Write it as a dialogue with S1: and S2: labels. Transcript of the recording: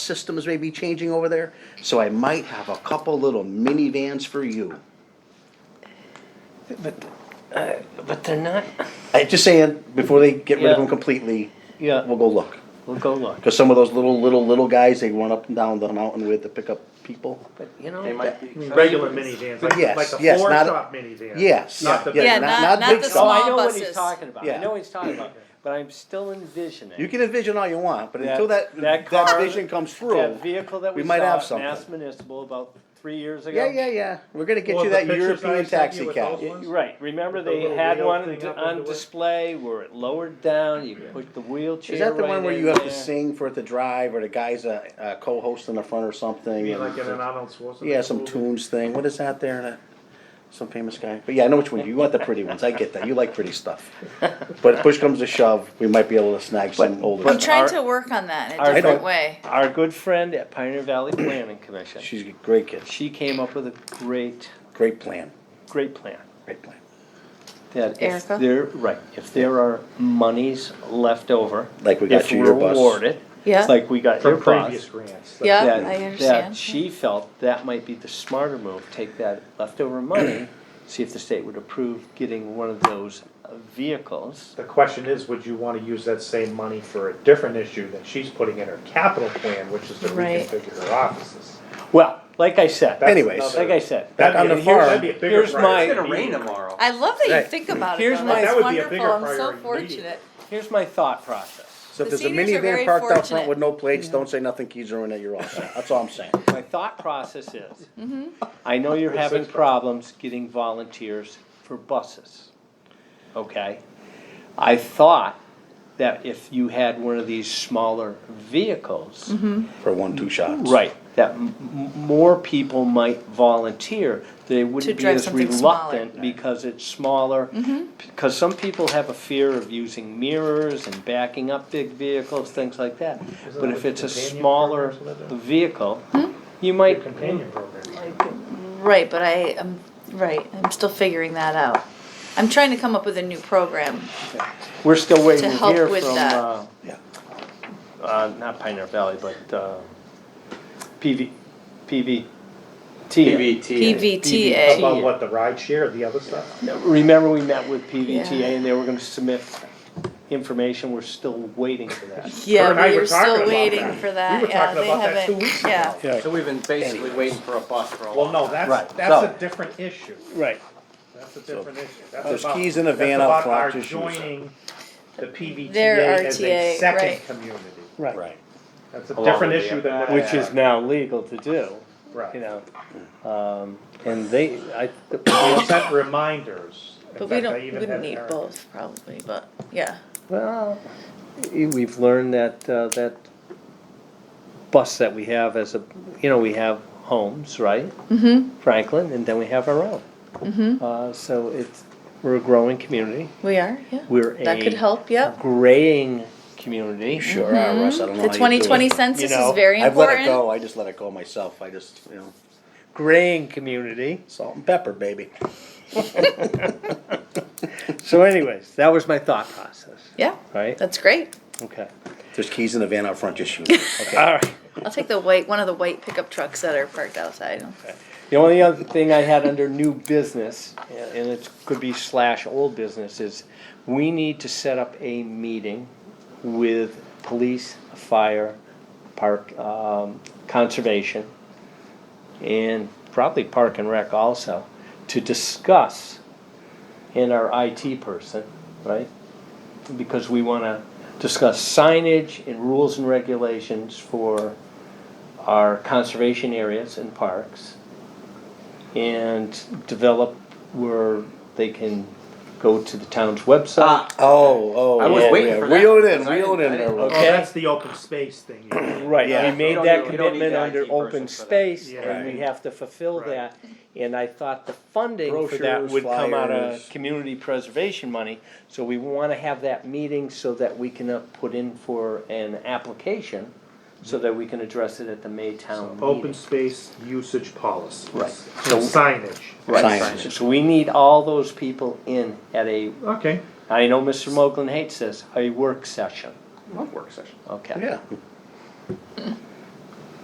S1: systems may be changing over there, so I might have a couple little minivans for you.
S2: But, uh, but they're not,
S1: i just saying, before they get rid of them
S2: Yeah.
S1: completely,
S2: yeah,
S1: we'll go look.
S2: we'll go look,
S1: Because some of those little, little, little guys, they run up and down the mountain with to pick up people.
S2: but you know.
S3: They might be
S2: I mean,
S4: regular minivans, like,
S1: Yes,
S4: like the
S1: yes,
S4: floor
S1: not-
S4: shop minivans.
S1: Yes,
S4: Not the
S1: yeah,
S4: big
S1: not-
S5: Yeah, not-
S1: not
S5: not
S1: big
S5: the
S1: stuff.
S2: Oh, I
S5: small
S2: know what
S5: buses.
S2: he's talking about, I
S1: Yeah.
S2: know what he's talking about, but I'm still envisioning.
S1: You can envision all you want, but until that,
S2: That- that
S1: that
S2: car-
S1: vision comes through.
S2: That vehicle that
S1: we
S2: we
S1: might
S2: saw
S1: have
S2: at
S1: something.
S2: Mass Municipal about three years ago.
S1: Yeah, yeah, yeah, we're gonna get
S4: Well,
S1: you
S4: the
S1: that
S4: pictures I
S1: European
S4: sent you
S1: taxi
S4: with
S1: cab.
S4: those
S2: Y- Right, remember
S4: With the
S2: they
S4: little
S2: had
S4: wheel
S2: one
S4: thing
S2: d-
S4: up
S2: on
S4: under it?
S2: display where it lowered down, you put the wheelchair
S1: Is that the
S2: right
S1: one where
S2: in
S1: you have
S2: there.
S1: to sing for it to drive, or the guy's a, a co-host in the front or something?
S4: You mean
S1: and-
S4: like in an Arnold Schwarzenegger
S1: Yeah, some
S4: movie?
S1: tunes thing. What is that there? That- Some famous guy. But yeah, I know which one. You want the pretty ones. I get that. You like pretty stuff. But push comes to shove, we might be able to snag some older
S5: I'm
S2: But
S1: stuff.
S5: trying
S2: our-
S5: to work on that in
S2: our-
S5: a different
S1: I don't-
S5: way.
S2: Our good friend at Pioneer Valley Planning Commission,
S1: She's a great kid.
S2: she came up with a great,
S1: Great plan.
S2: great plan.
S1: Great plan.
S2: That if
S5: Erica?
S2: there, right, if there are monies left over.
S1: Like we got
S2: if
S1: you
S2: we're
S1: your bus.
S2: awarded,
S5: Yeah.
S2: Like we got your
S4: From
S2: bus.
S4: previous grants. that-
S5: Yeah,
S2: that-
S5: I
S2: That
S5: understand.
S2: she felt that might be the smarter move, take that leftover money, see if the state would approve getting one of those uh, vehicles.
S4: The question is, would you wanna use that same money for a different issue that she's putting in her capital plan, which is to
S5: Right.
S4: reconfigure her offices?
S2: Well, like I said,
S4: That's
S1: Anyways.
S4: another-
S2: like I said,
S1: Back on
S4: That'd
S1: the
S4: be, a huge- that'd
S1: farm.
S4: be a bigger
S2: Here's
S4: priority.
S3: It's gonna rain tomorrow.
S5: I love that you
S1: Right.
S5: think about it.
S2: Here's
S5: though.
S2: my-
S5: That's
S4: That would be a
S5: wonderful.
S4: bigger
S5: I'm so
S4: priority than
S5: fortunate.
S2: here's my thought process.
S1: So if
S5: The
S1: there's a
S5: seniors are
S1: minivan
S5: very
S1: parked out front
S5: fortunate.
S1: with no plates, don't say nothing, keys are in it, you're all set. That's all I'm saying.
S2: My thought process is,
S5: Mm-hmm.
S2: I know you're having problems getting volunteers for buses, okay? I thought that if you had one of these smaller
S5: Mm-hmm.
S2: vehicles,
S1: For one, two shots.
S2: Right, that m- m- more people might volunteer, they
S5: To
S2: wouldn't be
S5: drive
S2: as
S5: something smaller. Mm-hmm.
S2: reluctant because it's smaller. Because some people have a fear of using mirrors and backing up big vehicles, things like that.
S4: Isn't
S2: But
S4: that
S2: if
S4: what
S2: it's a
S4: companion
S2: smaller
S4: programs are about?
S2: vehicle,
S5: Hmm?
S2: you might,
S4: Companion program.
S5: Right, but I am right. I'm still figuring that out. I'm trying to come up with a new program.
S2: we're still waiting
S5: To
S2: to
S5: help
S2: hear
S5: with
S2: from,
S5: that.
S2: uh,
S1: Yeah.
S2: uh, not Pioneer Valley, but, uh, PV, PVT.
S3: PVT.
S5: PVTA.
S4: About what, the ride share, the other stuff?
S2: Remember, we met with PVTA
S5: Yeah.
S2: and they were gonna submit information, we're still waiting for that.
S4: Her and I
S5: Yeah,
S4: were
S5: we are
S4: talking
S5: still
S4: about
S5: waiting
S4: that.
S5: for
S4: We
S5: that.
S4: were
S5: Yeah,
S4: talking
S5: they
S4: about that two
S5: haven't.
S4: weeks
S5: Yeah.
S4: ago.
S1: Yeah.
S3: So we've been basically waiting for a bus for a
S4: Well,
S3: long
S4: no,
S3: time.
S2: Right,
S4: that's, that's
S2: so-
S4: a different issue.
S2: Right.
S4: That's a different issue. That's
S1: There's
S4: about-
S1: keys in a
S4: that's
S1: van out
S4: about
S1: front,
S4: our
S1: just use it.
S4: Joining the PVTA
S5: Their
S4: as a
S5: RTA,
S4: second
S5: right.
S4: community.
S1: Right.
S4: That's a
S3: Along
S4: different
S3: with the
S4: issue than what.
S2: Which
S4: we
S2: is
S4: are.
S2: now legal to do, you
S4: Right.
S2: know, um, and they, I,
S4: We sent reminders. In
S5: But we
S4: fact, I
S5: don't.
S4: even
S5: Wouldn't
S4: had
S5: need
S4: Eric-
S5: both probably, but yeah.
S2: well, we've learned that, uh, that bus that we have as a, you know, we have homes, right?
S5: Mm-hmm.
S2: Franklin, and then we have our own.
S5: Mm-hmm.
S2: Uh, so it's, we're a growing community,
S5: We are. Yeah.
S2: we're
S5: That could
S2: a
S5: help. Mm-hmm. Yep.
S2: graying community.
S1: Sure are, Russ, I don't know how you do
S5: The
S1: it.
S5: twenty twenty census
S2: You know,
S5: is very
S1: I've let it
S5: important.
S1: go, I just let it go myself, I just, you know,
S2: graying community.
S1: salt and pepper, baby.
S2: So anyways, that was my thought process,
S5: Yeah,
S2: right?
S5: that's great.
S2: Okay.
S1: There's keys in the van out front, just shoot it.
S2: All right.
S5: I'll take the white, one of the white pickup trucks that are parked outside.
S2: The only other thing I had under new business, and it could be slash old business, is we need to set up a meeting with police, fire, park, um, conservation, and probably park and rec also, to discuss in our IT person, right? Because we wanna discuss signage and rules and regulations for our conservation areas and parks and develop where they can go to the town's website.
S3: Ah,
S1: Oh, oh.
S3: I was
S1: yeah,
S3: waiting
S1: yeah.
S3: for
S1: Reel
S3: that,
S1: it in,
S3: because I
S1: reel it in
S3: didn't- I
S1: there,
S3: didn't-
S1: Will.
S4: Oh,
S2: Okay.
S4: that's the open space thing.
S2: Right,
S1: Yeah.
S2: we made
S3: don't
S2: that
S3: need- we don't need
S2: commitment
S3: the
S2: under
S3: IT
S2: open
S3: person for that.
S2: space
S4: Yeah.
S2: and we
S1: Right.
S2: have to fulfill
S4: Right.
S2: that. And I thought the funding for that
S1: Brochures,
S2: would come out
S1: flyers.
S2: of community preservation money. So we wanna have that meeting so that we can uh, put in for an application, so that we can address it at the Maytown
S4: Open
S2: meeting.
S4: space usage policies.
S2: Right.
S4: So signage.
S2: Right,
S1: Signage.
S2: so we need all those people in at a,
S4: Okay.
S2: I know Mr. Moglen hates this, a work session,
S3: Love work session.
S2: okay?
S1: Yeah.